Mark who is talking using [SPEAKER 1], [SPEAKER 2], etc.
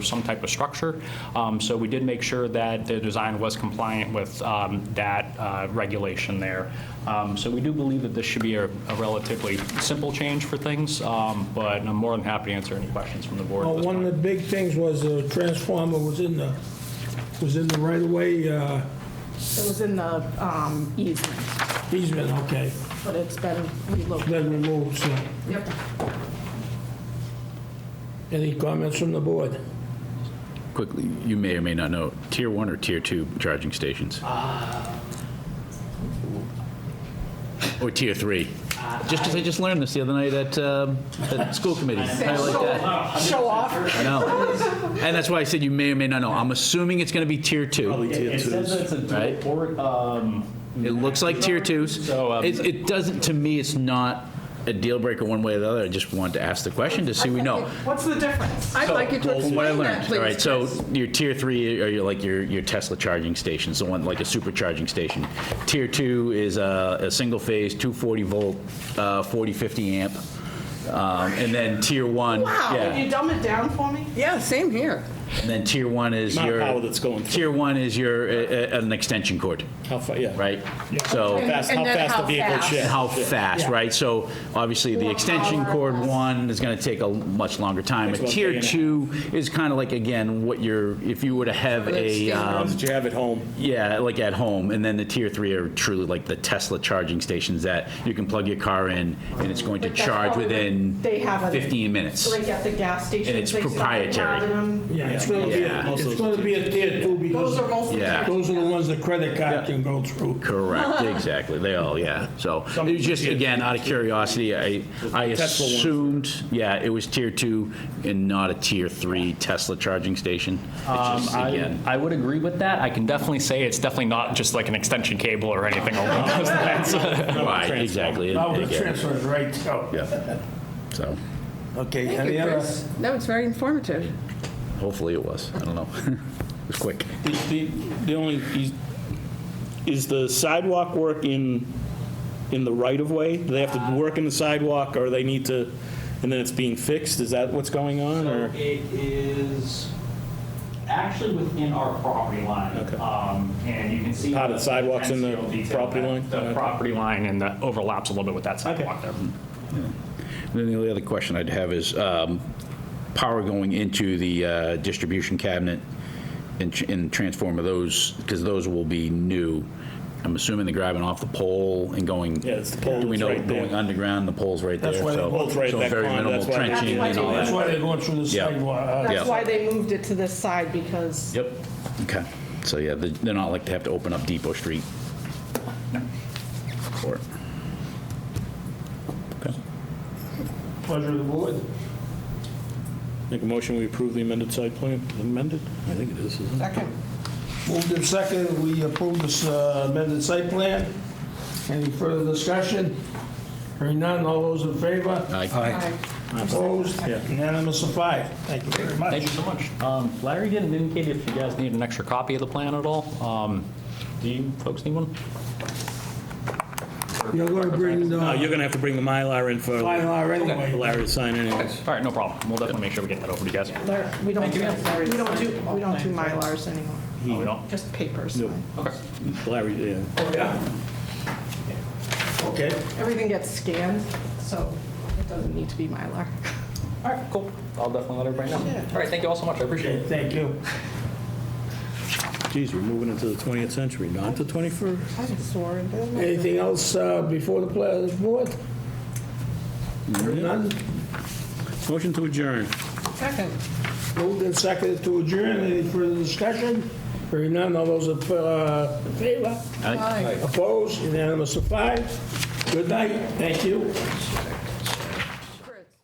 [SPEAKER 1] some type of structure. Um, So we did make sure that the design was compliant with um, that uh, regulation there. Um, So we do believe that this should be a a relatively simple change for things, um, but I'm more than happy to answer any questions from the board at
[SPEAKER 2] Well,
[SPEAKER 1] this
[SPEAKER 2] one of the
[SPEAKER 1] point.
[SPEAKER 2] big things was the transformer was in the, was in the right-of-way uh,
[SPEAKER 3] It was in the um, easement,
[SPEAKER 2] easement, okay,
[SPEAKER 3] but it's been relocated.
[SPEAKER 2] then removed, so.
[SPEAKER 3] Yep.
[SPEAKER 2] Any comments from the board?
[SPEAKER 4] Quickly, you may or may not know, tier one or tier two charging stations?
[SPEAKER 1] Uh,
[SPEAKER 4] Or tier three? Just because I just learned this the other night at, um, at school committee. I like that.
[SPEAKER 3] Show off.
[SPEAKER 4] I know. And that's why I said you may or may not know. I'm assuming it's going to be tier two.
[SPEAKER 1] It says it's a um,
[SPEAKER 4] Right.
[SPEAKER 1] report.
[SPEAKER 4] It looks like tier twos.
[SPEAKER 1] So, um,
[SPEAKER 4] It, it doesn't, to me, it's not a deal breaker one way or the other. I just wanted to ask the question to see we know.
[SPEAKER 3] What's the difference? I'd like you to
[SPEAKER 4] Well, from what I
[SPEAKER 3] explain that,
[SPEAKER 4] learned. All right,
[SPEAKER 3] please.
[SPEAKER 4] so your tier three are your, like your, your Tesla charging stations, the one like a supercharging station. Tier two is a, a single phase, 240 volt, uh, 40, 50 amp. Um, and then tier one,
[SPEAKER 3] Wow,
[SPEAKER 4] yeah.
[SPEAKER 3] can you dumb it down for me? Yeah, same here.
[SPEAKER 4] And then tier one is
[SPEAKER 5] Not
[SPEAKER 4] your
[SPEAKER 5] power that's going through.
[SPEAKER 4] tier one is your uh, uh, an extension cord,
[SPEAKER 5] How far, yeah.
[SPEAKER 4] right? So.
[SPEAKER 5] Fast,
[SPEAKER 3] And
[SPEAKER 5] how
[SPEAKER 3] then
[SPEAKER 5] fast
[SPEAKER 3] how
[SPEAKER 5] the vehicle
[SPEAKER 3] fast.
[SPEAKER 4] and
[SPEAKER 5] shifts.
[SPEAKER 4] how fast, right? So obviously, the extension cord one is going to take a much longer time. A
[SPEAKER 5] about a day
[SPEAKER 4] tier
[SPEAKER 5] and a
[SPEAKER 4] two is kind of like, again, what you're, if you were to have a, um,
[SPEAKER 5] Did you have at home?
[SPEAKER 4] yeah, like at home. And then the tier three are truly like the Tesla charging stations that you can plug your car in and it's going to
[SPEAKER 3] But that's
[SPEAKER 4] charge
[SPEAKER 3] probably
[SPEAKER 4] within
[SPEAKER 3] what they have on-
[SPEAKER 4] 15 minutes.
[SPEAKER 3] Like at the gas station.
[SPEAKER 4] And it's
[SPEAKER 3] they sell
[SPEAKER 4] proprietary.
[SPEAKER 3] them.
[SPEAKER 2] Yeah, it's gonna be,
[SPEAKER 4] Yeah.
[SPEAKER 2] a- it's gonna be a tier two
[SPEAKER 3] Those
[SPEAKER 2] because
[SPEAKER 3] are most.
[SPEAKER 4] Yeah.
[SPEAKER 2] those are the ones the credit card can go through.
[SPEAKER 4] Correct, exactly. They all, yeah. So it was just, again, out of curiosity, I, I
[SPEAKER 5] Tesla ones.
[SPEAKER 4] assumed, yeah, it was tier two and not a tier three Tesla charging station. It's just,
[SPEAKER 1] I
[SPEAKER 4] again,
[SPEAKER 1] I would agree with that. I can definitely say it's definitely not just like an extension cable or anything along those lines.
[SPEAKER 4] right,
[SPEAKER 5] transformer.
[SPEAKER 4] exactly.
[SPEAKER 2] Now, the
[SPEAKER 4] Again,
[SPEAKER 2] transfer is right, so.
[SPEAKER 4] Yeah. So
[SPEAKER 2] Okay,
[SPEAKER 6] Thank
[SPEAKER 2] any
[SPEAKER 6] you,
[SPEAKER 2] other?
[SPEAKER 6] Chris. That was very informative.
[SPEAKER 4] hopefully it was. I don't know. It was quick.
[SPEAKER 5] The- The the only, is- is the sidewalk work in, in the right-of-way? Do they have to work in the sidewalk, or they need to, and then it's being fixed? Is that what's going on,
[SPEAKER 1] So
[SPEAKER 5] or?
[SPEAKER 1] It is actually within our property line.
[SPEAKER 5] Okay.
[SPEAKER 1] Um, And you can see.
[SPEAKER 5] Part of the sidewalks in the
[SPEAKER 1] NCO detail
[SPEAKER 5] property
[SPEAKER 1] that
[SPEAKER 5] line?
[SPEAKER 1] The
[SPEAKER 5] Okay.
[SPEAKER 1] property line and the overlaps a little bit with that sidewalk there.
[SPEAKER 4] And Then the only other question I'd have is um, power going into the uh, distribution cabinet and tr- and transformer, those, because those will be new. I'm assuming they're grabbing off the pole and going.
[SPEAKER 5] Yeah, it's the pole
[SPEAKER 4] Do we
[SPEAKER 5] that's
[SPEAKER 4] know
[SPEAKER 5] right there.
[SPEAKER 4] Going underground, the pole's right there.
[SPEAKER 2] That's why the
[SPEAKER 4] so-
[SPEAKER 5] pole's right at
[SPEAKER 4] so
[SPEAKER 5] that
[SPEAKER 4] very
[SPEAKER 5] corner,
[SPEAKER 4] minimal
[SPEAKER 5] that's why-
[SPEAKER 4] trenching
[SPEAKER 3] That's why
[SPEAKER 4] and all
[SPEAKER 3] they-
[SPEAKER 2] That's
[SPEAKER 4] that.
[SPEAKER 2] why they're going through the
[SPEAKER 4] Yeah.
[SPEAKER 2] sidewalk. uh,
[SPEAKER 4] Yeah.
[SPEAKER 3] That's why they moved it to this side because
[SPEAKER 4] Yep, okay. So, yeah, they- they're not like to have to open up Depot Street. Or-
[SPEAKER 2] Pleasure of the board.
[SPEAKER 5] Make a motion, we approve the amended site plan? Amended? I think it is, isn't it?
[SPEAKER 2] Moved in second, we approve this uh, amended site plan. Any further discussion? Hearing none, all those in favor?
[SPEAKER 4] Aye.
[SPEAKER 2] Opposed? Unanimous of five. Thank you very much.
[SPEAKER 1] Thank you so much. Um, Larry didn't indicate if you guys need an extra copy of the plan at all. Um, Do you folks need one?
[SPEAKER 2] You're going to bring the
[SPEAKER 5] No, Oh, you're going to have to bring the Mylar in for
[SPEAKER 2] Mylar
[SPEAKER 5] for
[SPEAKER 2] anyway.
[SPEAKER 5] Larry to sign anyways.
[SPEAKER 1] All right, no problem. We'll definitely make sure we get that over to you guys.
[SPEAKER 3] Lar- we don't, we don't do, we don't do Mylars anymore,
[SPEAKER 1] Oh, we don't?
[SPEAKER 3] just papers.
[SPEAKER 5] Nope.
[SPEAKER 1] Okay.
[SPEAKER 5] Larry, yeah.
[SPEAKER 2] Oh, yeah. Okay.
[SPEAKER 3] Everything gets scanned, so it doesn't need to be Mylar.
[SPEAKER 1] All right, cool. I'll definitely let everybody know. All right, thank you all so much. I appreciate
[SPEAKER 2] Okay,
[SPEAKER 1] it.
[SPEAKER 2] thank you.
[SPEAKER 5] Geez, we're moving into the 20th century, not the 21st.
[SPEAKER 3] I just swore it down.
[SPEAKER 2] Anything else uh, before the pla- the board? Hearing none,
[SPEAKER 5] Motion to adjourn.
[SPEAKER 3] Second.
[SPEAKER 2] moved and seconded to adjourn. Any further discussion? Hearing none, all those in uh, in favor?
[SPEAKER 4] Aye.
[SPEAKER 2] Opposed? Unanimous of five. Good night. Thank you.